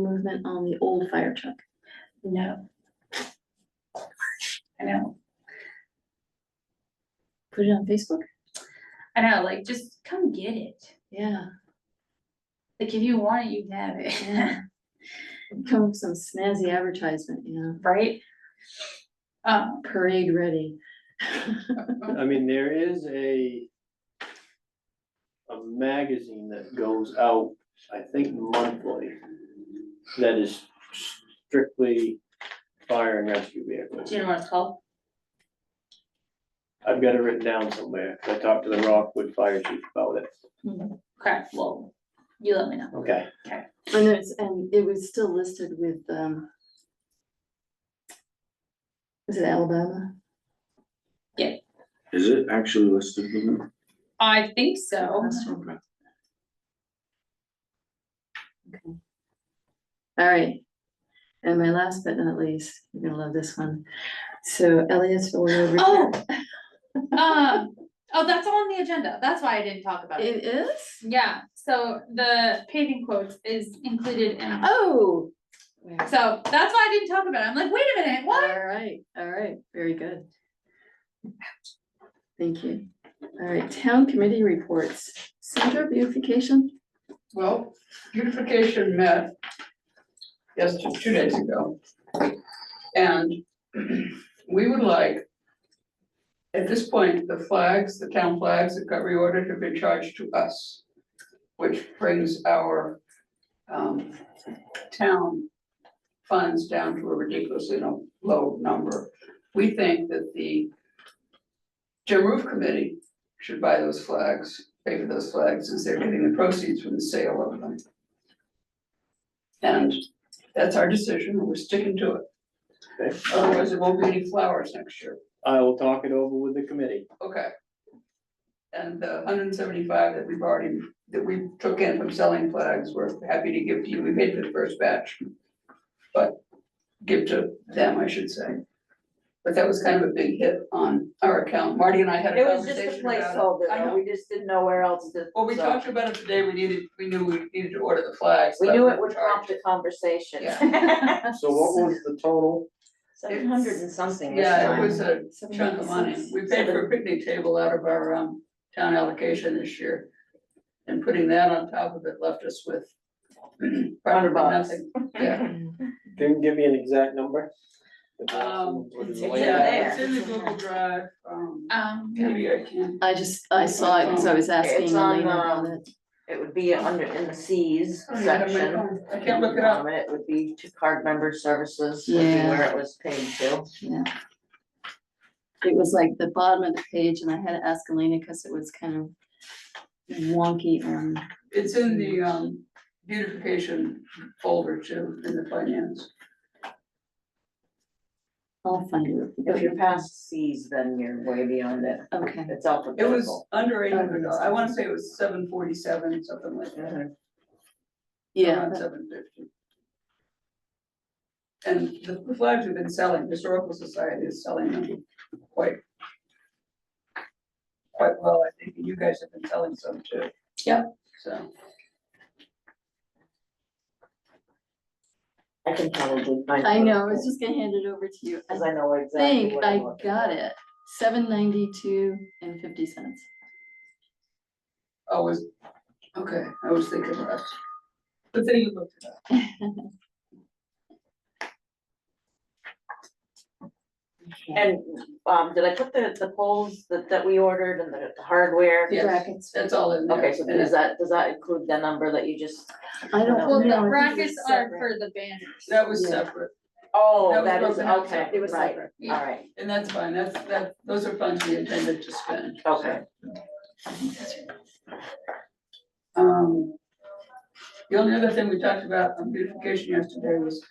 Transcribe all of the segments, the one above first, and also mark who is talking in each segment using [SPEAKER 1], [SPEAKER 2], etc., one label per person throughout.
[SPEAKER 1] improvement on the old fire truck.
[SPEAKER 2] No. I know,
[SPEAKER 1] Put it on Facebook?
[SPEAKER 2] I know, like, just come get it.
[SPEAKER 1] Yeah,
[SPEAKER 2] Like, if you want it, you can have it,
[SPEAKER 1] Yeah. come with some snazzy advertisement, you know,
[SPEAKER 2] right? Um,
[SPEAKER 1] parade ready.
[SPEAKER 3] I mean, there is a. A magazine that goes out, I think monthly. That is strictly fire and rescue
[SPEAKER 2] do
[SPEAKER 3] vehicles.
[SPEAKER 2] you know what it's called?
[SPEAKER 3] I've got it written down somewhere. I talked to the Rockwood Fire Chief about it.
[SPEAKER 2] Crap, well, you let me know.
[SPEAKER 3] Okay,
[SPEAKER 1] And it's, and it was still listed with, um. Is it Alabama?
[SPEAKER 4] Is it actually listed in there?
[SPEAKER 2] I think
[SPEAKER 1] Oh.
[SPEAKER 2] so.
[SPEAKER 4] Okay.
[SPEAKER 1] All right. And my last but not least, you're gonna love this one. So Elliot's over.
[SPEAKER 2] Oh, um, oh, that's on the agenda, that's why I didn't talk about it.
[SPEAKER 1] It is?
[SPEAKER 2] Yeah, so the paving quotes is included in,
[SPEAKER 1] Oh.
[SPEAKER 2] so that's why I didn't talk about it, I'm like, wait a minute, what?
[SPEAKER 1] All right, all right, very good. Thank you. All right, town committee reports, Center beautification.
[SPEAKER 5] Well, beautification met yesterday, two days ago. And we would like, at this point, the flags, the town flags that got reordered have been charged to us, which brings our um town funds down to a ridiculously no- low number. We think that the Jim Roof Committee should buy those flags pay for those flags since they're getting the proceeds from the sale of them. And that's our decision, and we're sticking to
[SPEAKER 3] Okay.
[SPEAKER 5] it. Otherwise, there won't be any flowers next year,
[SPEAKER 3] I will talk it over with the committee.
[SPEAKER 5] okay? And the hundred and seventy-five that we've already, that we took in from selling flags, we're happy to give to you, we made the first batch. But give to them, I should say. But that was kind of a big hit on our account, Marty and I had a
[SPEAKER 6] It was just
[SPEAKER 5] conversation
[SPEAKER 6] a
[SPEAKER 5] about it.
[SPEAKER 6] placeholder,
[SPEAKER 5] I know.
[SPEAKER 6] though, we just didn't know where else to.
[SPEAKER 5] Well, we
[SPEAKER 6] so-
[SPEAKER 5] talked about it today, we needed, we knew we needed to order the flags.
[SPEAKER 6] We
[SPEAKER 5] but
[SPEAKER 6] knew
[SPEAKER 5] we
[SPEAKER 6] it would
[SPEAKER 5] charged.
[SPEAKER 6] prompt a conversation.
[SPEAKER 3] So what was the total?
[SPEAKER 6] Seven hundred and something this
[SPEAKER 5] Yeah, it
[SPEAKER 6] time.
[SPEAKER 5] was a chunk of money, we paid for a picnic table out of our um town allocation this year. And putting that on top of it left us with.
[SPEAKER 6] Hundred
[SPEAKER 5] practically
[SPEAKER 6] bucks.
[SPEAKER 5] nothing. Yeah,
[SPEAKER 3] Can you give me an exact number?
[SPEAKER 5] Um,
[SPEAKER 3] What is
[SPEAKER 6] it's
[SPEAKER 3] the
[SPEAKER 6] in
[SPEAKER 3] layout?
[SPEAKER 5] yeah, it's in the Google Drive, um,
[SPEAKER 2] Um,
[SPEAKER 5] maybe I can,
[SPEAKER 1] I just, I saw it because I was asking
[SPEAKER 6] It's on,
[SPEAKER 1] Elena about
[SPEAKER 6] um,
[SPEAKER 1] it.
[SPEAKER 6] It would be under, in the Cs
[SPEAKER 5] I don't have my
[SPEAKER 6] section.
[SPEAKER 5] phone. I can't look it up.
[SPEAKER 6] Um, It would be to card member services, would be
[SPEAKER 1] Yeah.
[SPEAKER 6] where it was paid to.
[SPEAKER 1] Yeah. It was like the bottom of the page and I had to ask Elena because it was kind of wonky on.
[SPEAKER 5] It's in the um beautification folder too, in the finance.
[SPEAKER 1] I'll find it.
[SPEAKER 6] If you're past Cs, then you're way beyond it,
[SPEAKER 1] Okay,
[SPEAKER 6] it's
[SPEAKER 5] It
[SPEAKER 6] alphabetical.
[SPEAKER 5] was under eight hundred dollars, I wanna say it was seven forty-seven, something like that.
[SPEAKER 6] Mhm.
[SPEAKER 1] yeah,
[SPEAKER 5] around seven fifty. And the the flags have been selling, Historical Society is selling them quite. Quite well, I think, and you guys have been selling some too.
[SPEAKER 2] Yep.
[SPEAKER 5] So,
[SPEAKER 6] I can probably find.
[SPEAKER 1] I
[SPEAKER 6] it.
[SPEAKER 1] know, I was just gonna hand it over to you.
[SPEAKER 6] Cause I know exactly
[SPEAKER 1] think
[SPEAKER 6] what
[SPEAKER 1] I
[SPEAKER 6] I'm looking
[SPEAKER 1] got
[SPEAKER 6] for.
[SPEAKER 1] it, seven ninety-two and fifty cents.
[SPEAKER 5] I was, okay, I was thinking about. But then you looked it up.
[SPEAKER 6] And, um, did I put the, the poles that, that we ordered and the the hardware?
[SPEAKER 5] Yes.
[SPEAKER 1] Brackets.
[SPEAKER 5] That's all in there.
[SPEAKER 6] Okay, so
[SPEAKER 5] And
[SPEAKER 6] does that, does that include the number that you just,
[SPEAKER 1] I don't know.
[SPEAKER 2] well,
[SPEAKER 1] I
[SPEAKER 2] the
[SPEAKER 1] think
[SPEAKER 2] brackets
[SPEAKER 1] it's
[SPEAKER 2] are
[SPEAKER 1] separate.
[SPEAKER 2] for the banners.
[SPEAKER 5] That was
[SPEAKER 1] Yeah.
[SPEAKER 5] separate,
[SPEAKER 6] oh,
[SPEAKER 5] That
[SPEAKER 6] that
[SPEAKER 5] was
[SPEAKER 6] is,
[SPEAKER 5] broken out
[SPEAKER 6] okay,
[SPEAKER 5] separate. It was
[SPEAKER 6] right,
[SPEAKER 2] Yeah.
[SPEAKER 6] alright,
[SPEAKER 5] and that's fine, that's, that, those are funds we intended to spend.
[SPEAKER 6] okay.
[SPEAKER 5] Um. The only other thing we talked about on beautification yesterday was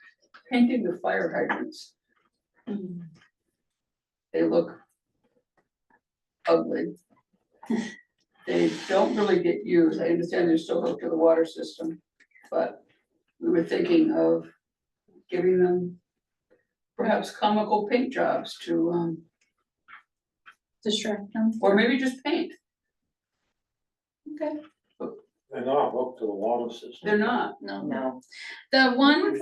[SPEAKER 5] painting the fire hydrants.
[SPEAKER 1] Mm.
[SPEAKER 5] They look ugly. They don't really get used. I understand they're still hooked to the water system, but we were thinking of giving them perhaps comical paint jobs to, um,
[SPEAKER 2] Distract them.
[SPEAKER 5] or maybe just paint.
[SPEAKER 2] Okay.
[SPEAKER 3] They're not hooked to the water system.
[SPEAKER 5] They're not.
[SPEAKER 2] No,
[SPEAKER 6] No.
[SPEAKER 2] the one